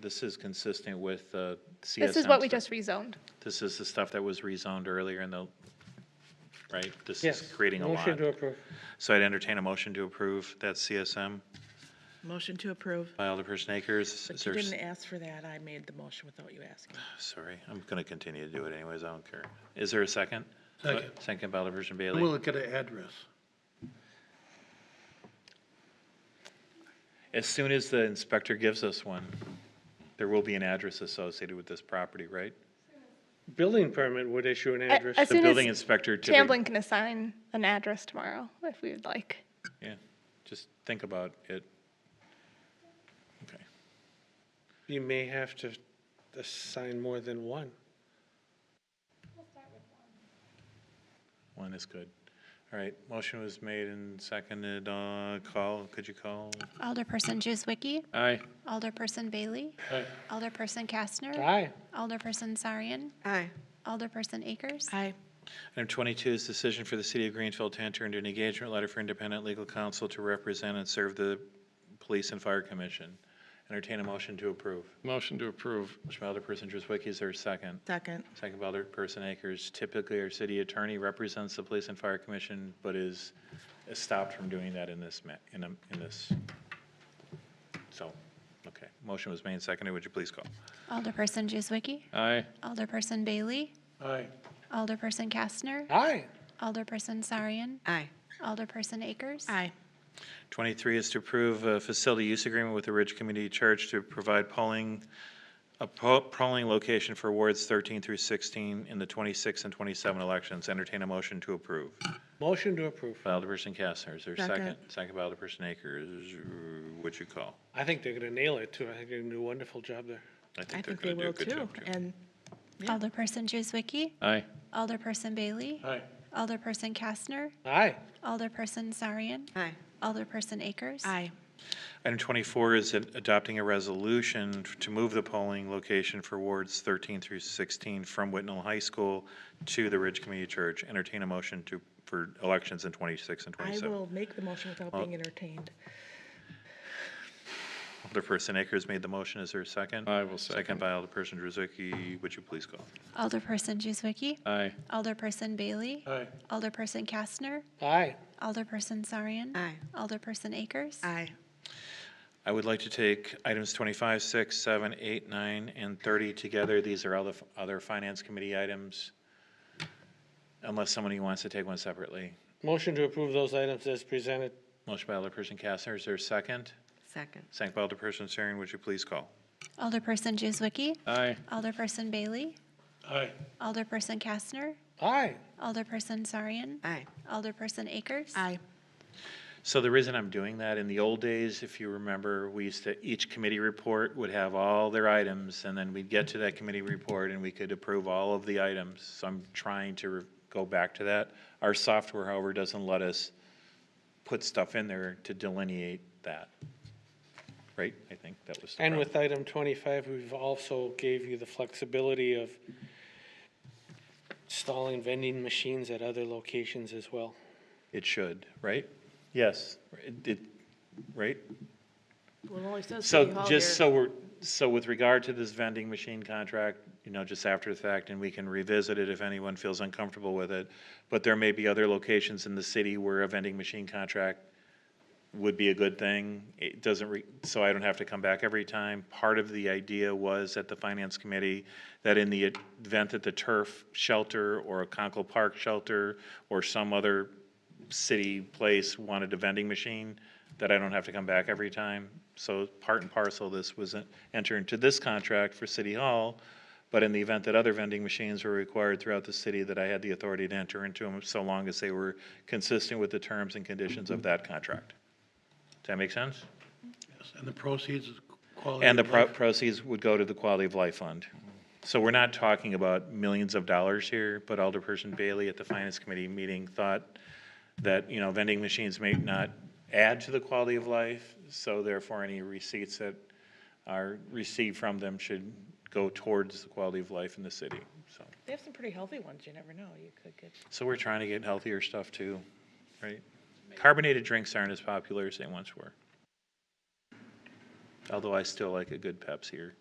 This is consistent with uh, CSM. This is what we stuff. just rezoned. This is the stuff that was rezoned earlier in the, right? This Yes. is creating a lot. Motion to approve. So I'd entertain a motion to approve that CSM Motion to approve. by Alderperson Akers. Is But you there s- didn't ask for that. I made the motion without you asking. Sorry, I'm going to continue to do it anyways, I don't care. Is there a second? Second. Second by Alderperson And we'll Bailey. look at an address. As soon as the inspector gives us one, there will be an address associated with this property, right? Building permit would issue an address. as The soon building as inspector typically, Chamblin can assign an address tomorrow, if we would like. yeah, just think about it. Okay. You may have to assign more than one. One is good. All right, motion was made and seconded, uh, call, could you call? Alderperson Juzwicki, Aye. Alderperson Bailey, Alderperson Kastner, Aye. Alderperson Sarian, Aye. Alderperson Akers, Aye. Item twenty-two is decision for the city of Greenfield to enter into an engagement letter for independent legal counsel to represent and serve the police and fire commission. Entertain a motion to approve. Motion to approve. Motion by Alderperson Driswick, is there a second? Second. Second by Alderperson Akers. Typically, our city attorney represents the police and fire commission, but is is stopped from doing that in this, ma- in, a- in this. So, okay, motion was made and seconded, would you please call? Alderperson Juzwicki, Aye. Alderperson Bailey, Aye. Alderperson Kastner, Aye. Alderperson Sarian, Aye. Alderperson Akers, Aye. 23 is to approve a facility use agreement with the Ridge Community Church to provide polling, a po- polling location for wards 13 through 16 in the 26 and 27 elections. Entertain a motion to approve. Motion to approve. By Alderperson Kastner, is there a second? Second. Second by Alderperson Akers, what you call? I think they're gonna nail it too. I think they're gonna do a wonderful job there. I they're think gonna they do a will good too. job, too. And Yeah. Alderperson Juzwicki, Aye. Alderperson Bailey, Aye. Alderperson Kastner, Aye. Alderperson Sarian, aye. Alderperson Akers, Aye. Item 24 is ad- adopting a resolution to move the polling location for wards 13 through 16 from Whitnall High School to the Ridge Community Church. Entertain a motion to, for elections in 26 and I 27. will make the motion without being entertained. Alderperson Akers made the motion. Is there a second? I will second. Second by Alderperson Druzicki. Would you please call? Alderperson Juzwicki, Aye. Alderperson Bailey, Aye. Alderperson Kastner, Aye. Alderperson Sarian, Aye. Alderperson Akers, Aye. I would like to take items 25, 6, 7, 8, 9, and 30 together. These are all the f- other Finance Committee items, unless somebody wants to take one separately. Motion to approve those items as presented. Motion by Alderperson Kastner. Is there a second? Second. Second by Alderperson Sarian. Would you please call? Alderperson Juzwicki, Aye. Alderperson Bailey, Aye. Alderperson Kastner, Aye. Alderperson Sarian, Aye. Alderperson Akers. Aye. So the reason I'm doing that, in the old days, if you remember, we used to, each committee report would have all their items, and then we'd get to that committee report and we could approve all of the items. So I'm trying to re- go back to that. Our software, however, doesn't let us put stuff in there to delineate that. Right? I think that was. the And problem. with item twenty-five, we've also gave you the flexibility of installing vending machines at other locations as well. It should, right? Yes, it, it, right? Well, only says So just so we're, so with regard to this vending machine contract, you know, just after the fact, and we can revisit it if anyone feels uncomfortable with it. But there may be other locations in the city where a vending machine contract would be a good thing. It doesn't re, so I don't have to come back every time. Part of the idea was at the finance committee that in the event that the turf shelter or a Conkle Park shelter or some other city place wanted a vending machine, that I don't have to come back every time. So part and parcel, this was en- entered into this contract for City Hall, but in the event that other vending machines were required throughout the city, that I had the authority to enter into them so long as they were consistent with the terms and conditions of that contract. Does that make sense? Yes, And the proceeds is quality. And the of pro- life. proceeds would go to the Quality of Life Fund. So we're not talking about millions of dollars here, but Alderperson Bailey at the Finance Committee meeting thought that, you know, vending machines may not add to the quality of life, so therefore any receipts that are received from them should go towards the quality of life in the city, so. They have some pretty healthy ones. You never know. You could get. So we're trying to get healthier stuff too, right? Carbonated drinks aren't as popular as they once were. Although I still like a good Pepsi or